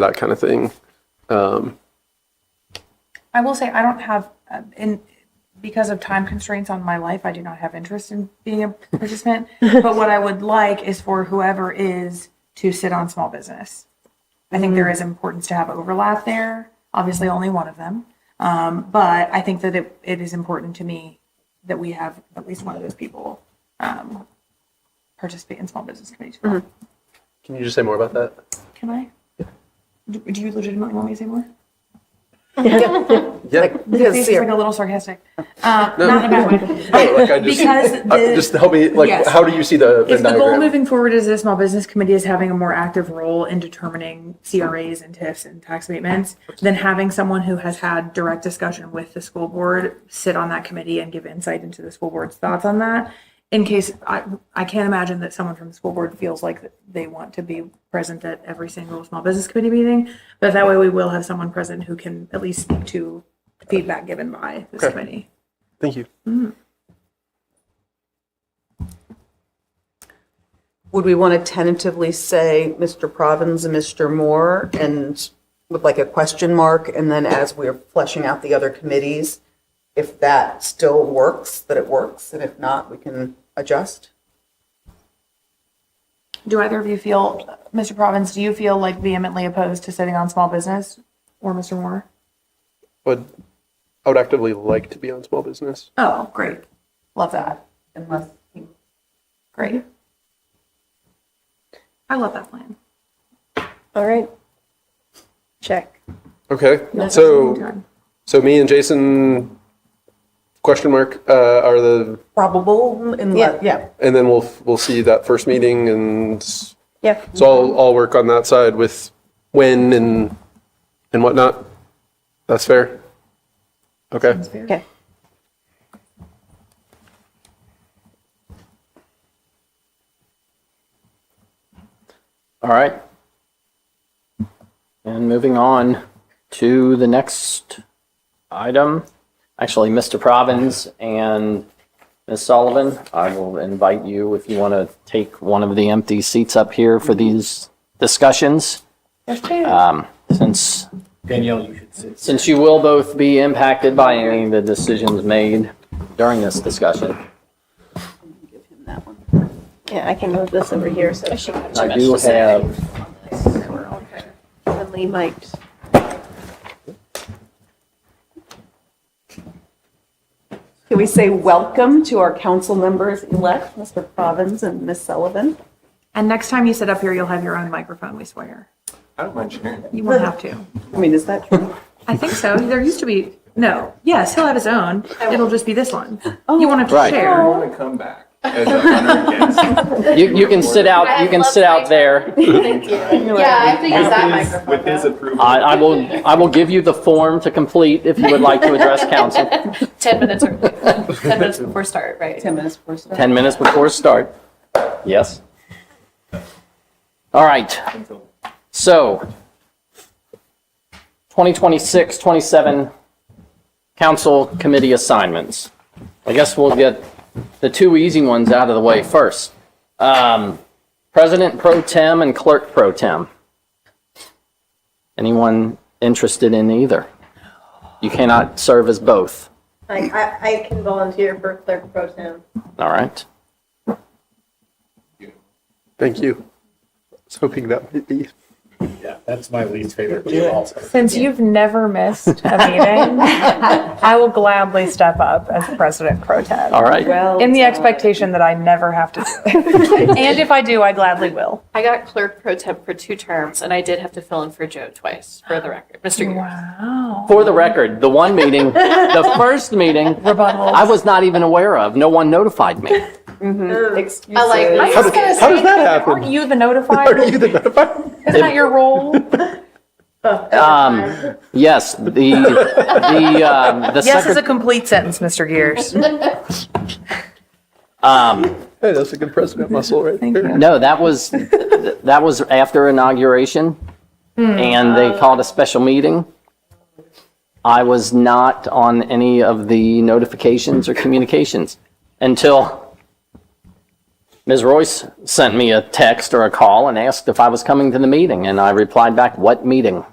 that kind of thing. Um, I will say I don't have, uh, in because of time constraints on my life, I do not have interest in being a participant. but what I would like is for whoever is to sit on small business. I think there is importance to have overlap there. Obviously, only one of them, um, but I think that it, it is important to me that we have at least one of those people um, participate in small business committees. can you just say more about that? Can I? Do, do you legitimately want me to say more? Yeah, Your face is like a little sarcastic. Uh, Not in a bad way. no, like I just, Because I- the- just help me. Like, yes. how do you see the Venn If the goal diagram? moving forward is the small business committee is having a more active role in determining CRAs and TIFs and tax abatements, then having someone who has had direct discussion with the school board sit on that committee and give insight into the school board's thoughts on that. In case, I, I can't imagine that someone from the school board feels like that they want to be present at every single small business committee meeting. But that way we will have someone present who can at least speak to feedback given by this Okay. committee. Thank you. Would we want to tentatively say Mr. Provins and Mr. Moore and with like a question mark? And then as we're fleshing out the other committees, if that still works, that it works, and if not, we can adjust? Do either of you feel, Mr. Provins, do you feel like vehemently opposed to sitting on small business or Mr. Moore? But I would actively like to be on small business. Oh, great. Love that. Unless. Great. I love that plan. All right. Check. Okay. That's what I'm So, doing. so me and Jason, question mark, uh, are the, Probable, and, Yeah. yeah, and then we'll we'll see that first meeting, and so Yeah. I'll I'll work on that side with when and and whatnot. That's fair. Okay. Okay. All right. And moving on to the next item. Actually, Mr. Provins and Ms. Sullivan, I will invite you if you want to take one of the empty seats up here for these discussions. Um, Since, Danielle, you should sit. since you will both be impacted by any of the decisions made during this discussion. Yeah, I can move this over here so she can I do have suddenly mics. Can we say welcome to our council members-elect, Mr. Provins and Ms. Sullivan? And next time you sit up here, you'll have your own microphone, we swear. I don't mind sharing. You won't have to. I mean, is that true? I think so. There used to be, no, yes, he'll have his own. Oh. It'll just be this one. You won't have to Right. I share. want to come back as a hunter and gatherer. You, you can sit out, you can sit out there. Thank you. Yeah, I think it's that With his, microphone. with his approval. I, I will, I will give you the form to complete if you would like to address council. Ten minutes or, ten minutes before start, right? 10 minutes per side. 10 minutes before start. Yes? All right, Until- so 2026, 27 council committee assignments. I guess we'll get the two easy ones out of the way first. Um, President pro tem and clerk pro tem. Anyone interested in either? You cannot serve as both, I, I, I can volunteer for clerk pro tem. all right? Thank you. I was hoping that might be. Yeah, that's my least favorite too also. Since you've never missed a meeting, I will gladly step up as president pro tem. All right. In the expectation that I never have to do it. And if I do, I gladly will. I got clerk pro temp for two terms, and I did have to fill in for Joe twice, for the record, Mr. Gear. Wow. For the record, the one meeting, the first meeting, I was not even aware of. No one notified me. I like, How, do- how does that happen? Aren't you the Are notifier? you the notifier? Isn't that your role? Um, yes, the the um, the Yes is a secretary. complete sentence, Mr. Gears. Um, Hey, that's a good president muscle right there. no, that was that was after inauguration, and they called a special meeting. I was not on any of the notifications or communications until Ms. Royce sent me a text or a call and asked if I was coming to the meeting, and I replied back, what meeting?